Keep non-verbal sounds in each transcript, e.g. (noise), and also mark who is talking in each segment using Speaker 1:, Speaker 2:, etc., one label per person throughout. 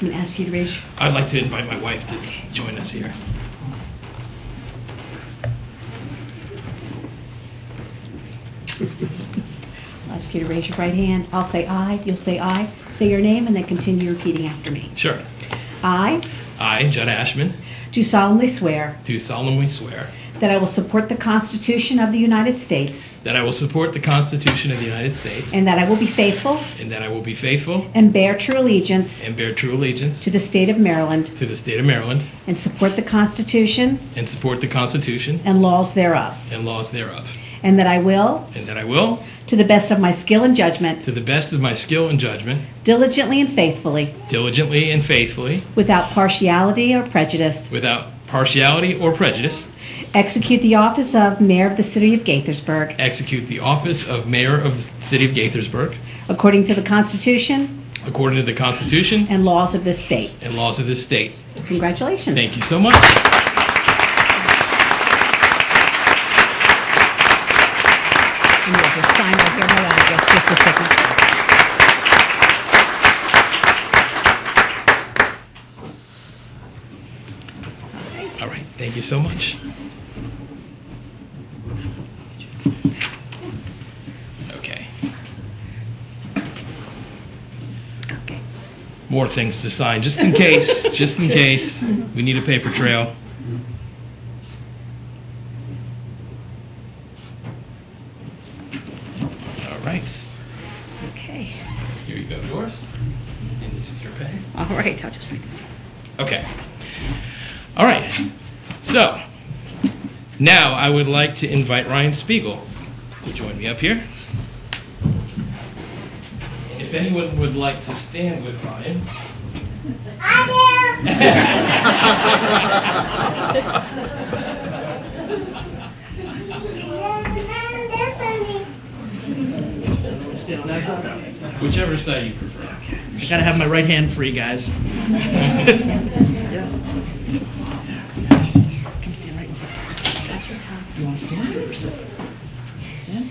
Speaker 1: Mr. Peteridge?
Speaker 2: I'd like to invite my wife to join us here.
Speaker 1: Ask you to raise your right hand. I'll say aye, you'll say aye. Say your name and then continue repeating after me.
Speaker 2: Sure.
Speaker 1: I
Speaker 2: I, Judd Ashman,
Speaker 1: do solemnly swear
Speaker 2: do solemnly swear
Speaker 1: that I will support the Constitution of the United States
Speaker 2: that I will support the Constitution of the United States
Speaker 1: and that I will be faithful
Speaker 2: and that I will be faithful
Speaker 1: and bear true allegiance
Speaker 2: and bear true allegiance
Speaker 1: to the state of Maryland
Speaker 2: to the state of Maryland
Speaker 1: and support the Constitution
Speaker 2: and support the Constitution
Speaker 1: and laws thereof,
Speaker 2: and laws thereof,
Speaker 1: and that I will,
Speaker 2: and that I will,
Speaker 1: to the best of my skill and judgment,
Speaker 2: to the best of my skill and judgment,
Speaker 1: diligently and faithfully,
Speaker 2: diligently and faithfully,
Speaker 1: without partiality or prejudice,
Speaker 2: without partiality or prejudice,
Speaker 1: execute the office of Mayor of the City of Gaithersburg
Speaker 2: execute the office of Mayor of the City of Gaithersburg
Speaker 1: according to the Constitution
Speaker 2: according to the Constitution
Speaker 1: and laws of this state.
Speaker 2: and laws of this state.
Speaker 1: Congratulations.
Speaker 2: Thank you so much.
Speaker 1: And we'll just sign right here. Hold on, just- just a second.
Speaker 2: All right, thank you so much. Okay,
Speaker 1: Okay.
Speaker 2: more things to sign, just in case, just in case, we need a paper trail. All right,
Speaker 1: Okay.
Speaker 2: here you go, yours, and this is your pen.
Speaker 1: All right, I'll just take this.
Speaker 2: Okay. All right. So now I would like to invite Ryan Spiegel to join me up here. And if anyone would like to stand with Ryan,
Speaker 3: Stand on that side.
Speaker 2: whichever side you prefer.
Speaker 3: I gotta have my right hand free, guys. Come stand right in front. You wanna stand or sit? Stand?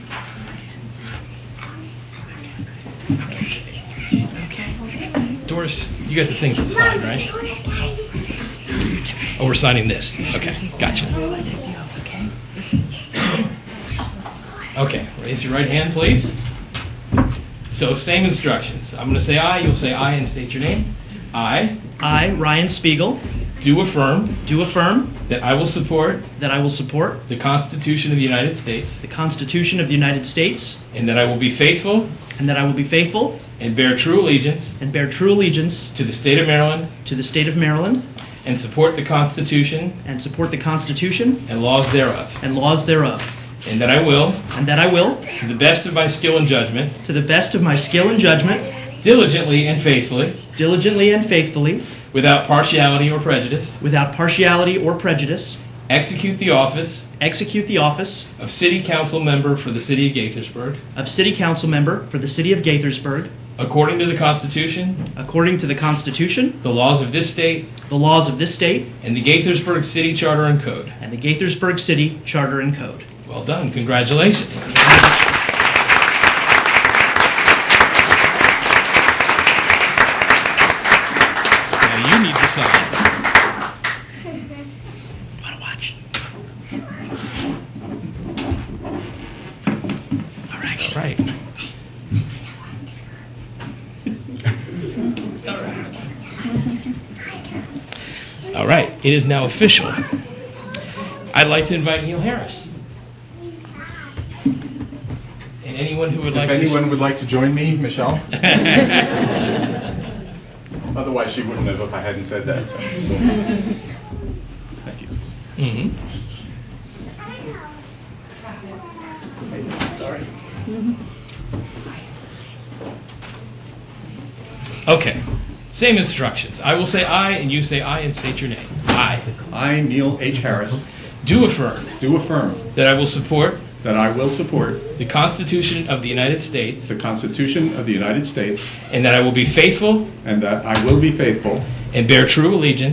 Speaker 2: Doris, you got the things to sign, right? Oh, we're signing this. Okay, gotcha. Okay, raise your right hand, please. So, same instructions. I'm going to say aye, you'll say aye and state your name. I
Speaker 3: I, Ryan Spiegel,
Speaker 2: do affirm
Speaker 3: do affirm
Speaker 2: that I will support
Speaker 3: that I will support
Speaker 2: the Constitution of the United States
Speaker 3: the Constitution of the United States
Speaker 2: and that I will be faithful
Speaker 3: and that I will be faithful
Speaker 2: and bear true allegiance
Speaker 3: and bear true allegiance
Speaker 2: to the state of Maryland
Speaker 3: to the state of Maryland
Speaker 2: and support the Constitution
Speaker 3: and support the Constitution
Speaker 2: and laws thereof,
Speaker 3: and laws thereof,
Speaker 2: and that I will,
Speaker 3: and that I will,
Speaker 2: to the best of my skill and judgment,
Speaker 3: to the best of my skill and judgment,
Speaker 2: diligently and faithfully,
Speaker 3: diligently and faithfully,
Speaker 2: without partiality or prejudice,
Speaker 3: without partiality or prejudice,
Speaker 2: execute the office
Speaker 3: execute the office
Speaker 2: of City Council Member for the City of Gaithersburg
Speaker 3: of City Council Member for the City of Gaithersburg
Speaker 2: according to the Constitution,
Speaker 3: according to the Constitution,
Speaker 2: the laws of this state,
Speaker 3: the laws of this state,
Speaker 2: and the Gaithersburg City Charter and Code.
Speaker 3: and the Gaithersburg City Charter and Code.
Speaker 2: Well done. Congratulations. Now you need to sign.
Speaker 3: Want to watch? All right.
Speaker 2: Right. All right. It is now official. I'd like to invite Neil Harris. And anyone who would like
Speaker 4: If
Speaker 2: to.
Speaker 4: anyone would like to join me,
Speaker 2: (laughs)
Speaker 4: Michelle? Otherwise, she wouldn't have if I hadn't said that. so. Thank you.
Speaker 2: Mhm.
Speaker 3: Sorry.
Speaker 2: Okay. Same instructions. I will say aye, and you say aye, and state your name. Aye.
Speaker 5: I, Neil H. Harris,
Speaker 2: Do affirm
Speaker 5: do affirm
Speaker 2: that I will support
Speaker 5: that I will support
Speaker 2: the Constitution of the United States
Speaker 5: the Constitution of the United States
Speaker 2: and that I will be faithful
Speaker 5: and that I will be faithful
Speaker 2: and bear true allegiance